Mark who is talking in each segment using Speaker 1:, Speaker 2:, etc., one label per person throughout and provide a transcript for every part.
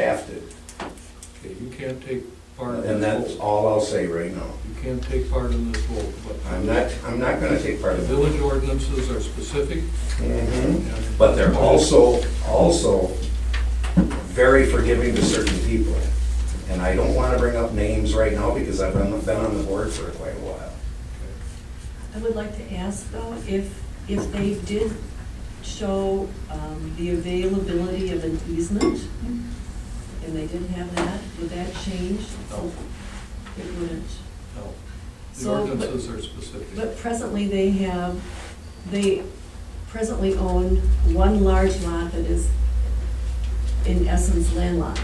Speaker 1: have to.
Speaker 2: Okay, you can't take part in
Speaker 1: And
Speaker 2: this
Speaker 1: that's
Speaker 2: vote.
Speaker 1: all I'll say right now.
Speaker 2: You can't take part in this vote, but.
Speaker 1: I'm not, I'm not gonna take part
Speaker 2: The
Speaker 1: of it.
Speaker 2: village ordinances are specific
Speaker 1: Mhm.
Speaker 2: and.
Speaker 1: But they're also, also very forgiving to certain people. And I don't wanna bring up names right now because I've been been on the board for quite a while.
Speaker 3: I would like to ask though, if, if they did show um, the availability of an easement, and they did have that, would that change?
Speaker 2: No.
Speaker 3: It wouldn't.
Speaker 2: No, the
Speaker 3: So, but-
Speaker 2: ordinances are specific.
Speaker 3: But presently they have, they presently own one large lot that is in essence landlocked.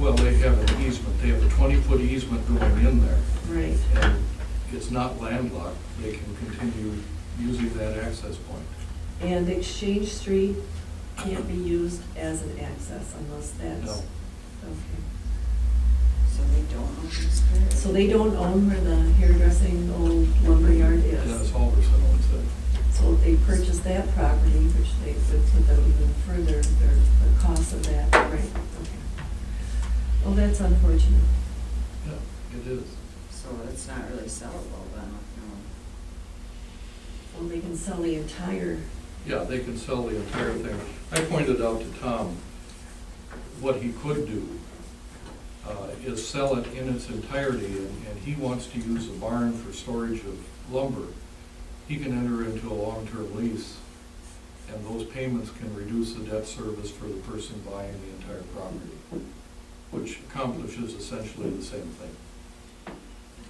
Speaker 2: Well, they have an easement, they have a twenty-foot easement going in there,
Speaker 3: Right.
Speaker 2: and it's not landlocked, they can continue using that access point.
Speaker 3: And Exchange Street can't be used as an access unless that's.
Speaker 2: No.
Speaker 3: Okay.
Speaker 4: So they don't own this area?
Speaker 3: So they don't own where the hairdressing old lumberyard
Speaker 2: Dennis
Speaker 3: is.
Speaker 2: Halverson owns it.
Speaker 3: So if they purchased that property, which they would put them even further, their, the cost of that, right, okay. Well, that's unfortunate.
Speaker 2: Yeah, it is.
Speaker 4: So it's not really sellable then, no.
Speaker 3: Well, they can sell the entire,
Speaker 2: Yeah, they can sell the entire thing. I pointed out to Tom, what he could do uh, is sell it in its entirety, and and he wants to use a barn for storage of lumber. He can enter into a long-term lease, and those payments can reduce the debt service for the person buying the entire property, which accomplishes essentially the same thing.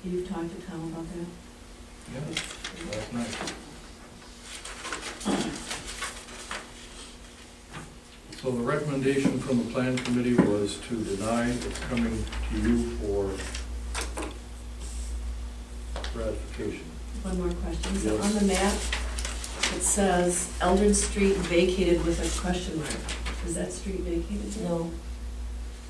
Speaker 3: you've talked to Tom about that?
Speaker 2: Yeah, that's nice. So the recommendation from the plan committee was to deny, it's coming to you for ratification.
Speaker 3: One more question. So
Speaker 2: Yes.
Speaker 3: on the map, it says Eldred Street vacated with a question mark. Is that street vacated? yet?
Speaker 5: No.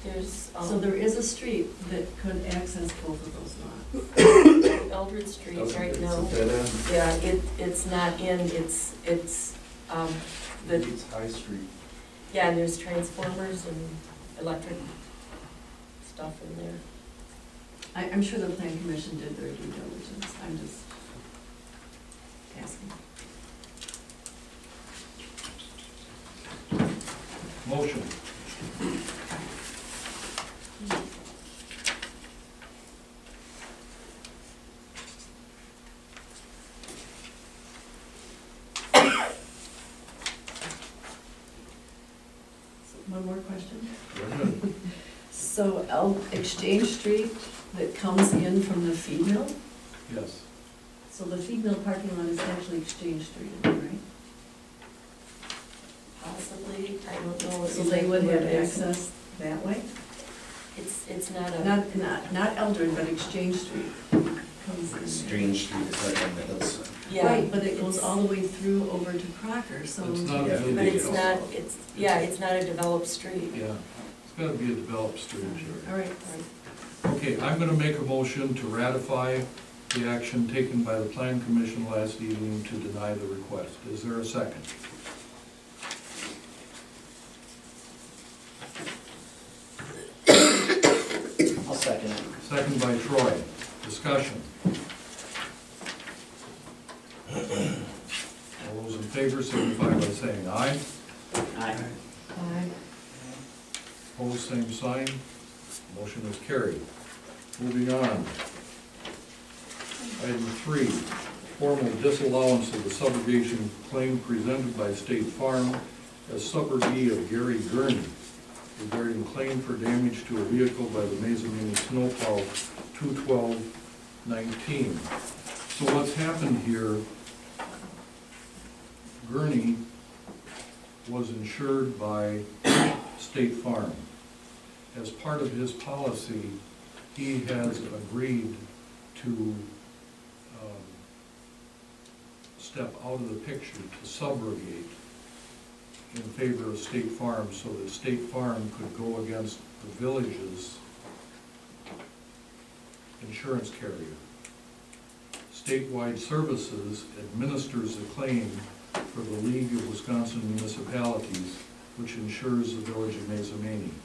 Speaker 5: There's,
Speaker 3: So there
Speaker 5: um,
Speaker 3: is a street that could access both of those lots.
Speaker 5: Eldred Street
Speaker 1: Doesn't-
Speaker 5: right
Speaker 1: it's
Speaker 5: now.
Speaker 1: a dead end.
Speaker 5: Yeah, it, it's not in, it's, it's, um, the,
Speaker 6: It's High Street.
Speaker 5: yeah, and there's transformers and electric stuff in there.
Speaker 3: I, I'm sure the plan commission did their due diligence, I'm just asking.
Speaker 2: Motion,
Speaker 3: So, One more question?
Speaker 2: Brenda,
Speaker 3: So El, Exchange Street that comes in from the feed mill,
Speaker 2: yes.
Speaker 3: so the feed mill parking lot is actually Exchange Street, right?
Speaker 5: Possibly, I don't know.
Speaker 3: So they would
Speaker 5: where
Speaker 3: have
Speaker 5: it Oh, is.
Speaker 3: access that way?
Speaker 5: It's, it's not a,
Speaker 3: Not, not, not Eldred, but Exchange Street comes in.
Speaker 1: Strange Street is like on the hillside.
Speaker 5: yeah.
Speaker 3: Right, but it goes
Speaker 5: it's-
Speaker 3: all the way through over to Crocker, so.
Speaker 2: It's not a
Speaker 1: Yeah.
Speaker 2: village.
Speaker 5: But it's not, it's, yeah, it's not a developed street.
Speaker 2: Yeah, it's gotta be a developed street
Speaker 3: All
Speaker 2: area.
Speaker 3: right,
Speaker 2: Okay, I'm gonna make a motion to ratify the action taken by the plan commission last evening to deny the request. Is there a second?
Speaker 6: I'll second it.
Speaker 2: Second by Troy. Discussion. All those in favor signify by saying aye.
Speaker 6: Aye.
Speaker 5: Aye.
Speaker 2: Opposed, same sign. Motion is carried. Moving on. Item three, formal disallowance of the subrogation claim presented by State Farm as subrogee of Gary Gurney regarding claim for damage to a vehicle by the Mazamini snowplow two twelve nineteen. So what's happened here, Gurney was insured by State Farm. As part of his policy, he has agreed to um, step out of the picture to subrogate in favor of State Farm, so that State Farm could go against the village's insurance carrier. Statewide Services administers a claim for the League of Wisconsin Municipalities, which insures the village of Mazamani.